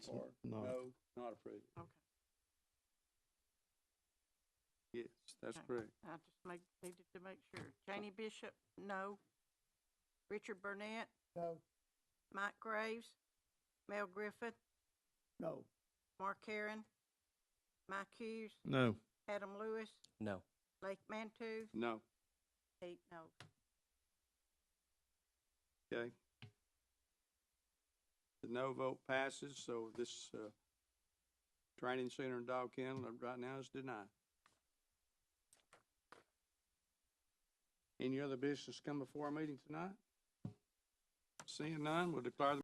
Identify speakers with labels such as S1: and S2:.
S1: Or
S2: No,
S1: no, not approve it.
S3: Okay,
S1: Yes, that's
S3: Okay.
S1: correct.
S3: I just make, needed to make sure. Janie Bishop, no. Richard Burnett?
S4: No.
S3: Mike Graves? Mel Griffith?
S4: No.
S3: Mark Karen? Mike Hughes?
S2: no,
S3: Adam Lewis?
S5: No.
S3: Blake Mantoo?
S1: No,
S3: Eight no.
S1: okay. The no vote passes, so this, uh, training center and dog kennel uh, right now is denied. Any other business come before our meeting tonight? Seeing none, we'll declare the